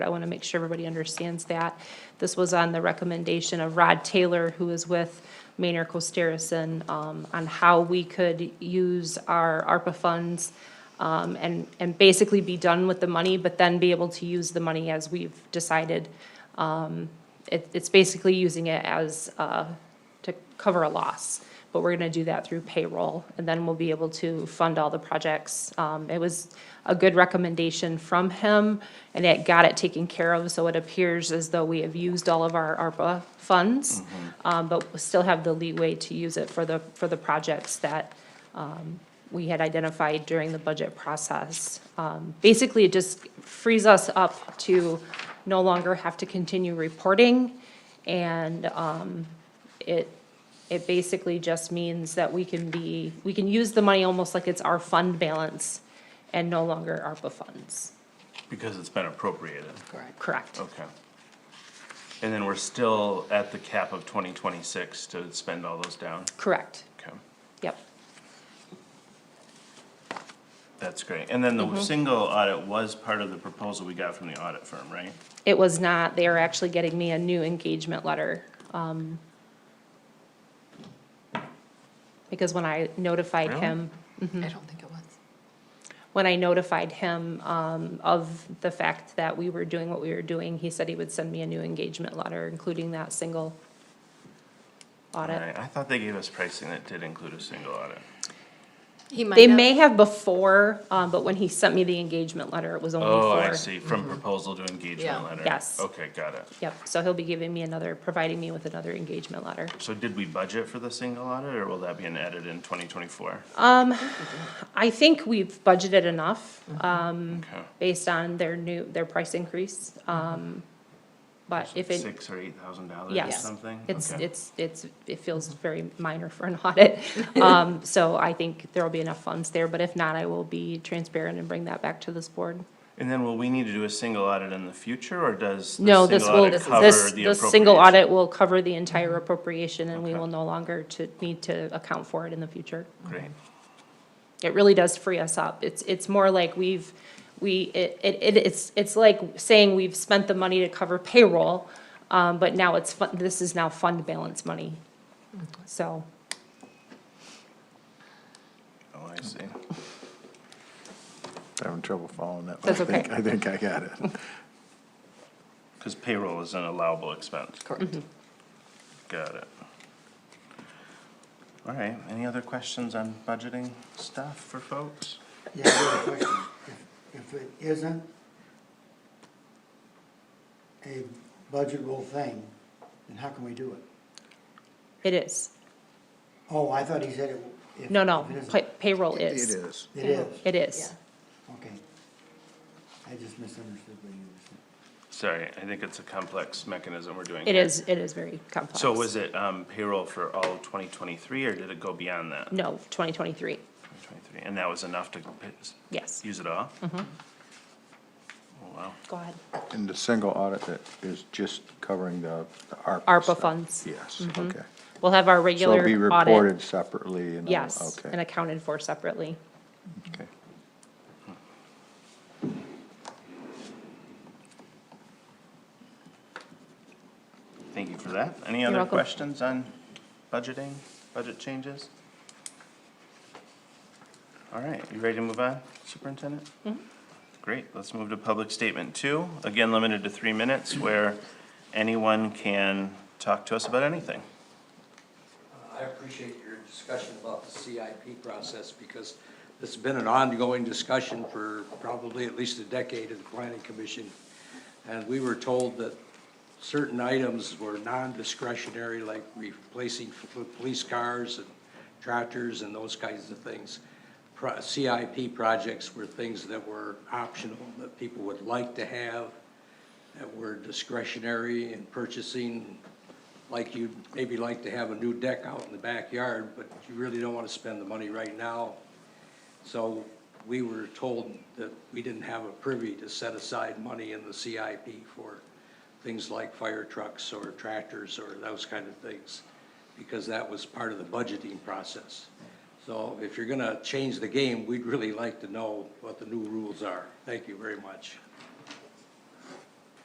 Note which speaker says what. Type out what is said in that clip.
Speaker 1: I want to make sure everybody understands that. This was on the recommendation of Rod Taylor, who is with Maynard Costerison, um, on how we could use our ARPA funds um, and, and basically be done with the money, but then be able to use the money as we've decided. Um, It, it's basically using it as, uh, to cover a loss, but we're gonna do that through payroll, and then we'll be able to fund all the projects. Um, it was a good recommendation from him, and it got it taken care of, so it appears as though we have used all of our ARPA funds, um, but we still have the leeway to use it for the, for the projects that, um, we had identified during the budget process. Um, basically, it just frees us up to no longer have to continue reporting, and, um, it, it basically just means that we can be, we can use the money almost like it's our fund balance and no longer ARPA funds.
Speaker 2: Because it's been appropriated,
Speaker 3: Correct.
Speaker 1: Correct.
Speaker 2: okay. And then we're still at the cap of twenty twenty-six to spend all those down,
Speaker 1: Correct.
Speaker 2: okay,
Speaker 1: Yep.
Speaker 2: that's great. And then
Speaker 1: Mm-hmm.
Speaker 2: the single audit was part of the proposal we got from the audit firm, right?
Speaker 1: It was not, they are actually getting me a new engagement letter. um, Because when I notified him,
Speaker 3: I don't think it was.
Speaker 1: when I notified him um, of the fact that we were doing what we were doing, he said he would send me a new engagement letter, including that single audit.
Speaker 2: Alright, I thought they gave us pricing that did include a single audit.
Speaker 3: He might
Speaker 1: They
Speaker 3: have-
Speaker 1: may have before, um, but when he sent me the engagement letter, it was only
Speaker 2: Oh,
Speaker 1: four.
Speaker 2: I see, from proposal to engagement
Speaker 3: Yeah.
Speaker 2: letter.
Speaker 1: Mm-hmm. Yes.
Speaker 2: Okay, got it.
Speaker 1: Yep, so he'll be giving me another, providing me with another engagement letter.
Speaker 2: So did we budget for the single audit, or will that be an edit in twenty twenty-four?
Speaker 1: I think we've budgeted enough, um,
Speaker 2: Okay.
Speaker 1: based on their new, their price increase, um, but if it.
Speaker 2: Six or eight thousand dollars or
Speaker 1: Yes.
Speaker 2: something?
Speaker 1: It's,
Speaker 2: Okay.
Speaker 1: it's, it's, it feels very minor for an audit. Um, so I think there'll be enough funds there, but if not, I will be transparent and bring that back to this board.
Speaker 2: And then will we need to do a single audit in the future, or does? the
Speaker 1: No, this
Speaker 2: single
Speaker 1: will,
Speaker 2: audit
Speaker 1: this,
Speaker 2: cover
Speaker 1: this
Speaker 2: the
Speaker 1: this single
Speaker 2: appropriation? Mm-hmm.
Speaker 1: audit will cover the entire appropriation and we
Speaker 2: Okay.
Speaker 1: will no longer to, need to account for it in the future.
Speaker 2: Great,
Speaker 1: It really does free us up. It's, it's more like we've, we, it, it, it- it's, it's like saying we've spent the money to cover payroll, um, but now it's, fun- this is now fund balance money.
Speaker 2: Mm-hmm.
Speaker 1: So,
Speaker 2: oh, I see.
Speaker 4: Having trouble following that. one.
Speaker 1: That's
Speaker 4: I think-
Speaker 1: okay.
Speaker 4: I think I got it.
Speaker 2: Because payroll is an allowable expense,
Speaker 1: Mm-hmm.
Speaker 3: Correct.
Speaker 2: got it. All right, any other questions on budgeting stuff for folks?
Speaker 5: Yeah, I have a question. If if it isn't a budgetable thing, then how can we do it?
Speaker 1: it is.
Speaker 5: Oh, I thought he said it. if-
Speaker 1: No, no,
Speaker 5: if it isn't.
Speaker 1: pay- payroll
Speaker 4: It
Speaker 1: is.
Speaker 4: is.
Speaker 5: It is,
Speaker 1: It is.
Speaker 5: okay. I just misunderstood what you were
Speaker 2: Sorry,
Speaker 5: saying.
Speaker 2: I think it's a complex mechanism we're doing.
Speaker 1: It
Speaker 2: here.
Speaker 1: is, it is very complex.
Speaker 2: So was it um, payroll for all twenty twenty-three, or did it go beyond that?
Speaker 1: No, 2023,
Speaker 2: 2023, And that was enough to p- s-
Speaker 1: yes.
Speaker 2: use it all? Mm-hmm. Oh, wow.
Speaker 1: Go ahead.
Speaker 4: And the single audit that is just covering the the ARPA.
Speaker 1: ARPA
Speaker 4: stuff.
Speaker 1: funds.
Speaker 4: Yes, okay.
Speaker 1: We'll have our
Speaker 4: So it'll be
Speaker 1: regular audit.
Speaker 4: reported separately and. all-
Speaker 1: Yes, and
Speaker 4: Okay.
Speaker 1: accounted for separately.
Speaker 4: okay.
Speaker 2: Thank you for that. Any
Speaker 1: You're
Speaker 2: other
Speaker 1: welcome.
Speaker 2: questions on budgeting, budget changes? All right, you ready to move on, Superintendent?
Speaker 1: Mm-hmm.
Speaker 2: Great, let's move to public statement two, again, limited to three minutes, where anyone can talk to us about anything.
Speaker 6: I appreciate your discussion about the CIP process because it's been an ongoing discussion for probably at least a decade at the planning commission. And we were told that certain items were non-discretionary, like replacing f- police cars and tractors and those kinds of things. Pro- CIP projects were things that were optional, that people would like to have, that were discretionary in purchasing, like you'd maybe like to have a new deck out in the backyard, but you really don't want to spend the money right now. So we were told that we didn't have a privy to set aside money in the CIP for things like fire trucks or tractors or those kind of things, because that was part of the budgeting process. So if you're gonna change the game, we'd really like to know what the new rules are. Thank you very much.